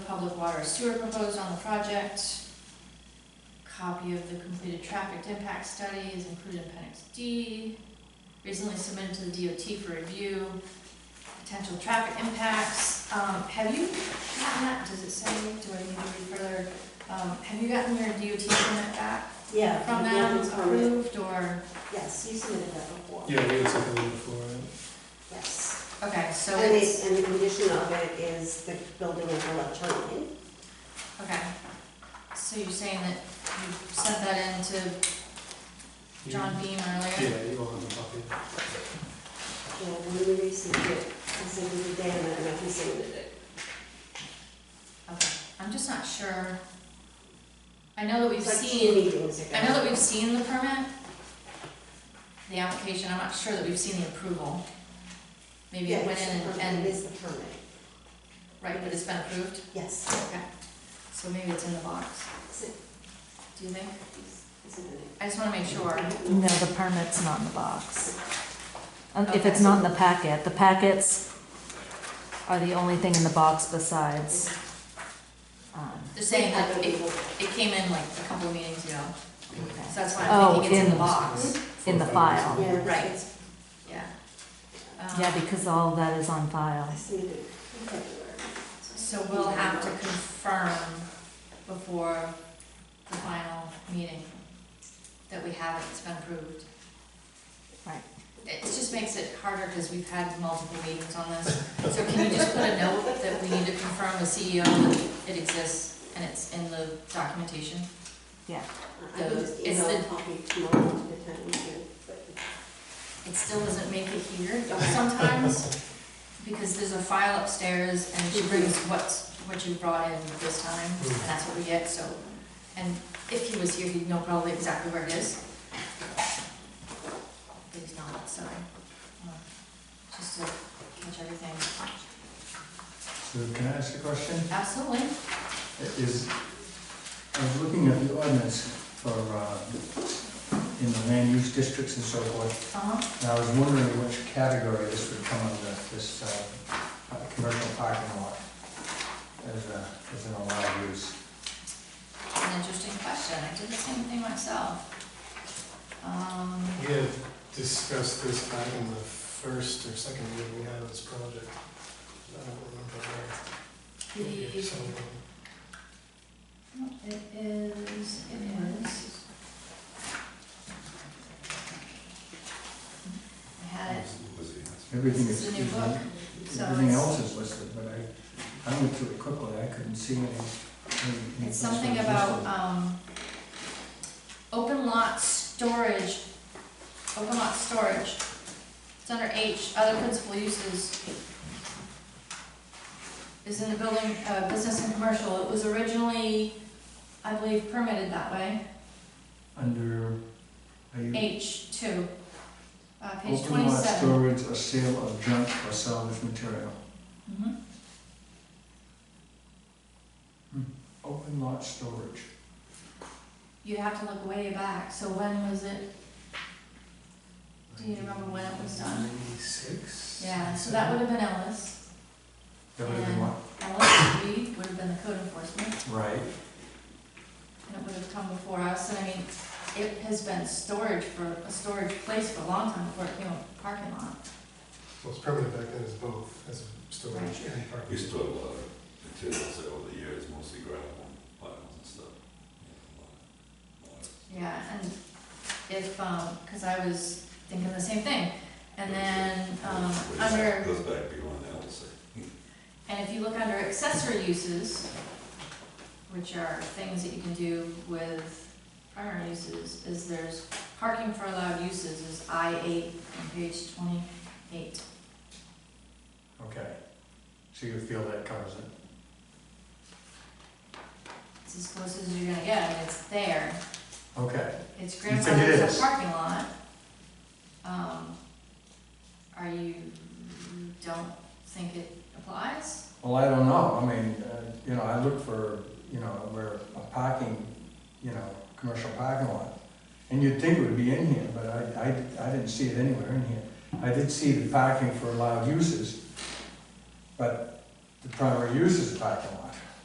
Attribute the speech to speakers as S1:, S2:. S1: public water or sewer proposed on the project. Copy of the completed traffic impact study is included in appendix D. Recently submitted to the DOT for review. Potential traffic impacts, um, have you gotten that, does it say, do I need to read further? Um, have you gotten your DOT permit back
S2: Yeah.
S1: from
S2: we have
S1: them,
S2: the permit.
S1: approved, or,
S2: Yes, you submitted that before.
S3: Yeah, we had something before, right?
S2: Yes.
S1: okay, so
S2: And
S1: it's,
S2: the, and the condition of it is the building is electronic.
S1: okay. So you're saying that you sent that in to John Beam earlier?
S3: Yeah, you all have a copy.
S2: Yeah, when we received it, I said we did that, and I submitted it.
S1: Okay, I'm just not sure. I know that we've
S2: It's like two
S1: seen,
S2: meetings ago.
S1: I know that we've seen the permit, the application, I'm not sure that we've seen the approval. Maybe
S2: Yeah,
S1: it went
S2: it's the
S1: in
S2: permit,
S1: and,
S2: It
S1: and,
S2: is the permit,
S1: right, but it's been approved,
S2: yes.
S1: okay. So maybe it's in the box,
S2: Is it-
S1: do you think?
S2: is it in
S1: I just wanna make sure.
S4: No, the permit's not in the box. Um, If it's not in the packet, the packets are the only thing in the box besides, um,
S1: They're saying that it, it came in like a couple of meetings ago, so that's why
S4: Oh,
S1: I'm thinking it's in
S4: in-
S1: the box,
S4: in the file.
S2: Yeah,
S1: Right.
S2: it's-
S1: yeah.
S4: Yeah,
S1: Um,
S4: because all that is on file.
S2: I submitted it in February. Uh,
S1: So we'll have to confirm before the final meeting that we have it, it's been approved.
S4: Right.
S1: It just makes it harder because we've had multiple meetings on this. So can you just put a note that we need to confirm with CEO that it exists and it's in the documentation?
S2: I can just
S1: It's
S2: email
S1: the-
S2: a copy tomorrow to the town manager, but
S1: It still doesn't make it here sometimes because there's a file upstairs and she brings what's, what you brought in this time and that's what we get, so. And if he was here, he'd know probably exactly where it is. But he's not, so, um, just to catch everything.
S5: So can I ask a question?
S1: Absolutely.
S5: Is, I was looking at the ordinance for, uh, in the land use districts and so forth,
S1: Uh-huh.
S5: and I was wondering which category this would come under, this uh, uh, commercial parking lot as a, as an allowed use.
S1: An interesting question. I did the same thing myself. Um,
S3: We had discussed this back in the first or second year we had of this project. I don't remember where.
S1: the,
S3: Somewhere.
S1: it is, it is. I had it.
S5: Everything
S1: This
S5: is,
S1: is a new book, so
S5: everything
S1: it's-
S5: else is listed, but I, I went through it quickly, I couldn't see any. any-
S1: It's something about, um, open lot storage, open lot storage. It's under H, other principal uses. Is in the building, uh, business and commercial. It was originally, I believe, permitted that way, uh,
S5: Under, are you?
S1: H two. Uh, page
S5: Mm-hmm. Open lot
S1: twenty-seven.
S5: storage or sale of junk or salvage material.
S1: Mhm.
S5: Open lot storage.
S1: You'd have to look way back, so when was it? Do you remember when it was done?
S3: Ninety-six?
S1: Yeah, so that would have been Ellis.
S5: That would have been what?
S1: Alex Reed would have been the code enforcement,
S5: Right.
S1: and it would have come before us, and I mean, it has been storage for, a storage place for a long time before it became a parking lot.
S3: Well, it's permanent back then as both, as storage and parking.
S6: We stored a lot of materials there over the years, mostly gravel and piles and stuff. Yeah, a lot, a
S1: Yeah,
S6: lot.
S1: and if, um, cause I was thinking the same thing, and then, um,
S6: Goes back-
S1: under,
S6: Goes back beyond that, we'll say.
S1: and if you look under accessory uses, which are things that you can do with primary uses, is there's parking for allowed uses is I eight on page twenty-eight.
S5: Okay. So you feel that covers it?
S1: It's as close as you're gonna get, and it's there.
S5: Okay.
S1: It's
S5: think it
S1: grandfathered as
S5: is?
S1: a parking lot. Um, are you, don't think it applies?
S5: Well, I don't know. I mean, uh, you know, I look for, you know, where a parking, you know, commercial parking lot. And you'd think it would be in here, but I, I, I didn't see it anywhere in here. I did see the parking for allowed uses, but the primary use is a parking lot.